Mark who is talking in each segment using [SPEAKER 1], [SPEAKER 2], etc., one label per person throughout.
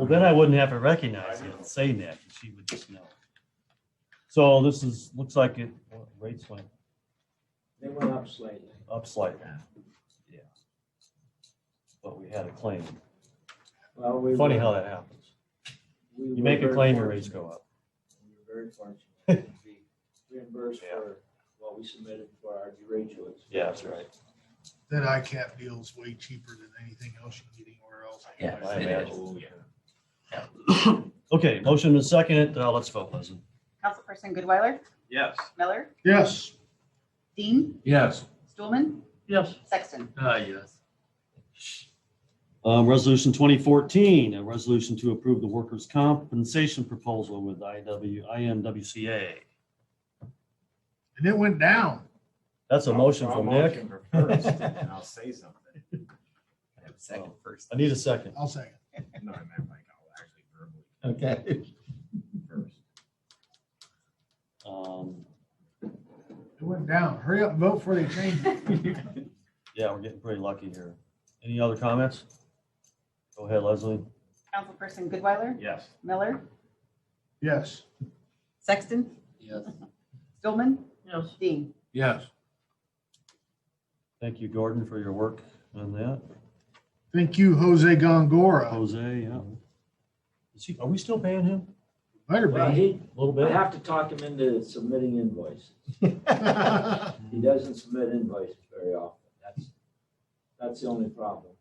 [SPEAKER 1] Well, then I wouldn't have to recognize it, saying that, she would just know. So this is, looks like it, what, rates went
[SPEAKER 2] They went up slightly.
[SPEAKER 1] up slightly. Yeah. But we had a claim.
[SPEAKER 2] Well, we
[SPEAKER 1] Funny
[SPEAKER 2] were-
[SPEAKER 1] how that happens.
[SPEAKER 2] we
[SPEAKER 1] You
[SPEAKER 2] were
[SPEAKER 1] make a
[SPEAKER 2] very
[SPEAKER 1] claim, your rates
[SPEAKER 2] fortunate.
[SPEAKER 1] go up.
[SPEAKER 2] We were very fortunate to be reimbursed for what we submitted for our derecho.
[SPEAKER 1] Yeah, that's right.
[SPEAKER 3] That ICAP deal's way cheaper than anything else you can get anywhere else.
[SPEAKER 4] Yeah,
[SPEAKER 1] I
[SPEAKER 4] it
[SPEAKER 1] imagine.
[SPEAKER 4] is.
[SPEAKER 1] Okay, motion and second, uh, let's vote, Leslie.
[SPEAKER 5] Councilperson Goodweiler?
[SPEAKER 6] Yes.
[SPEAKER 5] Miller?
[SPEAKER 3] Yes,
[SPEAKER 5] Dean?
[SPEAKER 4] Yes.
[SPEAKER 5] Stulman?
[SPEAKER 6] Yes.
[SPEAKER 5] Sexton?
[SPEAKER 4] Ah, yes.
[SPEAKER 1] Um, resolution twenty fourteen, a resolution to approve the workers' compensation proposal with IW, IMWCA.
[SPEAKER 3] and it went down.
[SPEAKER 1] That's a motion
[SPEAKER 6] I'll
[SPEAKER 1] from Nick.
[SPEAKER 6] motion for first, And I'll say something.
[SPEAKER 4] I have a second first.
[SPEAKER 1] I need a second.
[SPEAKER 3] I'll second.
[SPEAKER 6] No, I meant like I'll actually verbally
[SPEAKER 4] Okay.
[SPEAKER 6] first.
[SPEAKER 1] Um,
[SPEAKER 3] It went down. Hurry up and vote before they change it.
[SPEAKER 1] yeah, we're getting pretty lucky here. Any other comments? Go ahead, Leslie.
[SPEAKER 5] Councilperson Goodweiler?
[SPEAKER 6] Yes.
[SPEAKER 5] Miller?
[SPEAKER 3] Yes,
[SPEAKER 5] Sexton?
[SPEAKER 4] Yes.
[SPEAKER 5] Stulman?
[SPEAKER 6] Yes.
[SPEAKER 5] Dean?
[SPEAKER 4] Yes.
[SPEAKER 1] Thank you, Gordon, for your work on that.
[SPEAKER 3] thank you, Jose Gongora.
[SPEAKER 1] Jose, yeah. Is he, are we still paying him?
[SPEAKER 3] Better
[SPEAKER 2] Well,
[SPEAKER 3] be.
[SPEAKER 2] he,
[SPEAKER 1] A little
[SPEAKER 2] I
[SPEAKER 1] bit?
[SPEAKER 2] have to talk him into submitting invoices.
[SPEAKER 1] Mm-hmm.
[SPEAKER 2] He doesn't submit invoices very often. That's, that's the only problem.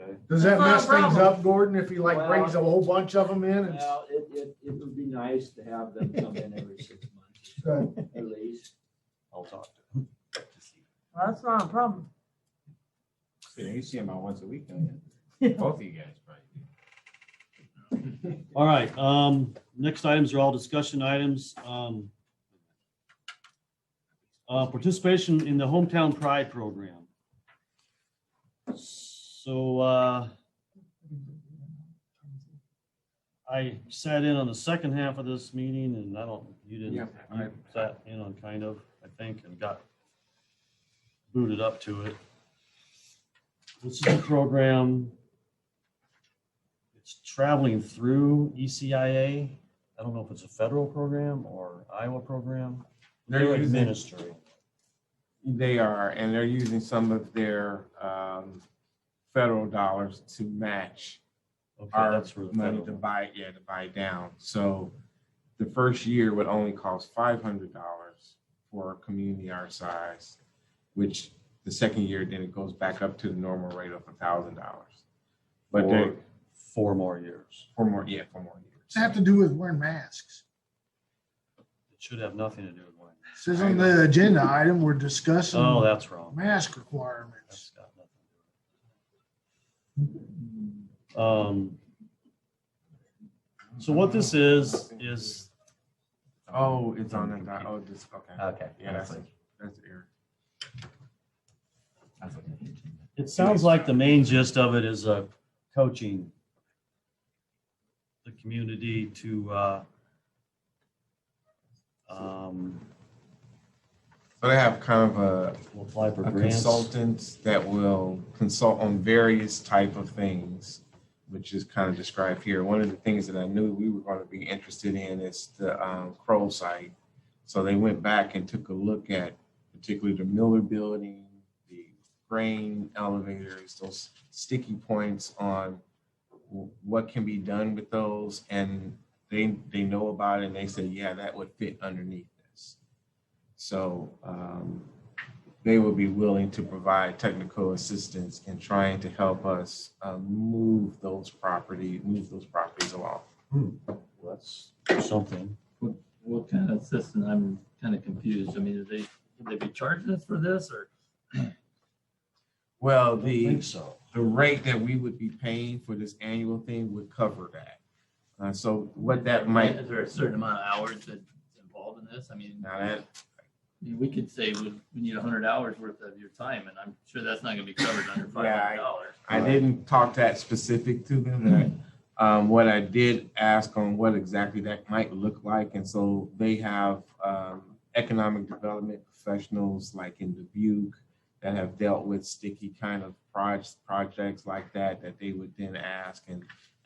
[SPEAKER 1] Okay.
[SPEAKER 3] Does that mess things up, Gordon, if he like
[SPEAKER 2] Well-
[SPEAKER 3] brings a whole bunch of them in? and-
[SPEAKER 2] Well, it, it, it would be nice to have them come in every six months
[SPEAKER 3] Good.
[SPEAKER 2] at least.
[SPEAKER 1] I'll talk to him.
[SPEAKER 7] Well, that's not a problem.
[SPEAKER 6] You know, you see him about once a week, don't you? Both of you guys probably. do.
[SPEAKER 1] All right, um, next items are all discussion items. Um, uh, participation in the Hometown Pride Program. So, uh, I sat in on the second half of this meeting and I don't, you didn't,
[SPEAKER 4] Yeah, I-
[SPEAKER 1] you sat in on kind of, I think, and got booted up to it. This is a program, it's traveling through ECIA. I don't know if it's a federal program or Iowa program. They're
[SPEAKER 8] They're using-
[SPEAKER 1] administering.
[SPEAKER 8] They are, and they're using some of their um, federal dollars to match
[SPEAKER 1] Okay,
[SPEAKER 8] our
[SPEAKER 1] that's where the
[SPEAKER 8] money
[SPEAKER 1] federal-
[SPEAKER 8] to buy, yeah, to buy down. So the first year would only cost five hundred dollars for a community our size, which the second year, then it goes back up to the normal rate of a thousand dollars. But they,
[SPEAKER 1] For four more years.
[SPEAKER 8] for more, yeah, for more
[SPEAKER 3] Does it have
[SPEAKER 8] years.
[SPEAKER 3] to do with wearing masks?
[SPEAKER 1] It should have nothing to do with one.
[SPEAKER 3] It Says on the agenda item, we're discussing
[SPEAKER 1] Oh, that's wrong.
[SPEAKER 3] mask requirements.
[SPEAKER 1] That's got nothing to do with it. Um, So what this is, is
[SPEAKER 8] Oh, it's on that, di- oh, this, okay,
[SPEAKER 4] Okay.
[SPEAKER 8] yeah, that's, that's error.
[SPEAKER 4] That's okay.
[SPEAKER 1] It sounds like the main gist of it is uh, coaching the community to uh, um,
[SPEAKER 8] So they have kind of a
[SPEAKER 1] apply for
[SPEAKER 8] a
[SPEAKER 1] grants.
[SPEAKER 8] consultant that will consult on various type of things, which is kind of described here. One of the things that I knew we were going to be interested in is the um, Crow site. So they went back and took a look at particularly the Miller Building, the grain elevators, those sticky points on w- what can be done with those, and they they know about it, and they said, yeah, that would fit underneath this. So um, they would be willing to provide technical assistance in trying to help us uh, move those property, move those properties along.
[SPEAKER 1] That's something.
[SPEAKER 4] What kind of assistant? I'm kind of confused. I mean, are they, would they be charging us for this or?
[SPEAKER 8] Well,
[SPEAKER 1] I
[SPEAKER 8] the
[SPEAKER 1] think so.
[SPEAKER 8] the rate that we would be paying for this annual thing would cover that. Uh, so what that might
[SPEAKER 4] Is there a certain amount of hours that's involved in this? I mean,
[SPEAKER 8] now that
[SPEAKER 4] I mean, we could say we, we need hundred hours worth of your time and I'm sure that's not gonna be covered under five hundred dollars.
[SPEAKER 8] I didn't talk that specific to them. That um, what I did ask on what exactly that might look like, and so they have um, economic development professionals like in Dubuque that have dealt with sticky kind of proj- projects like that that they would then ask and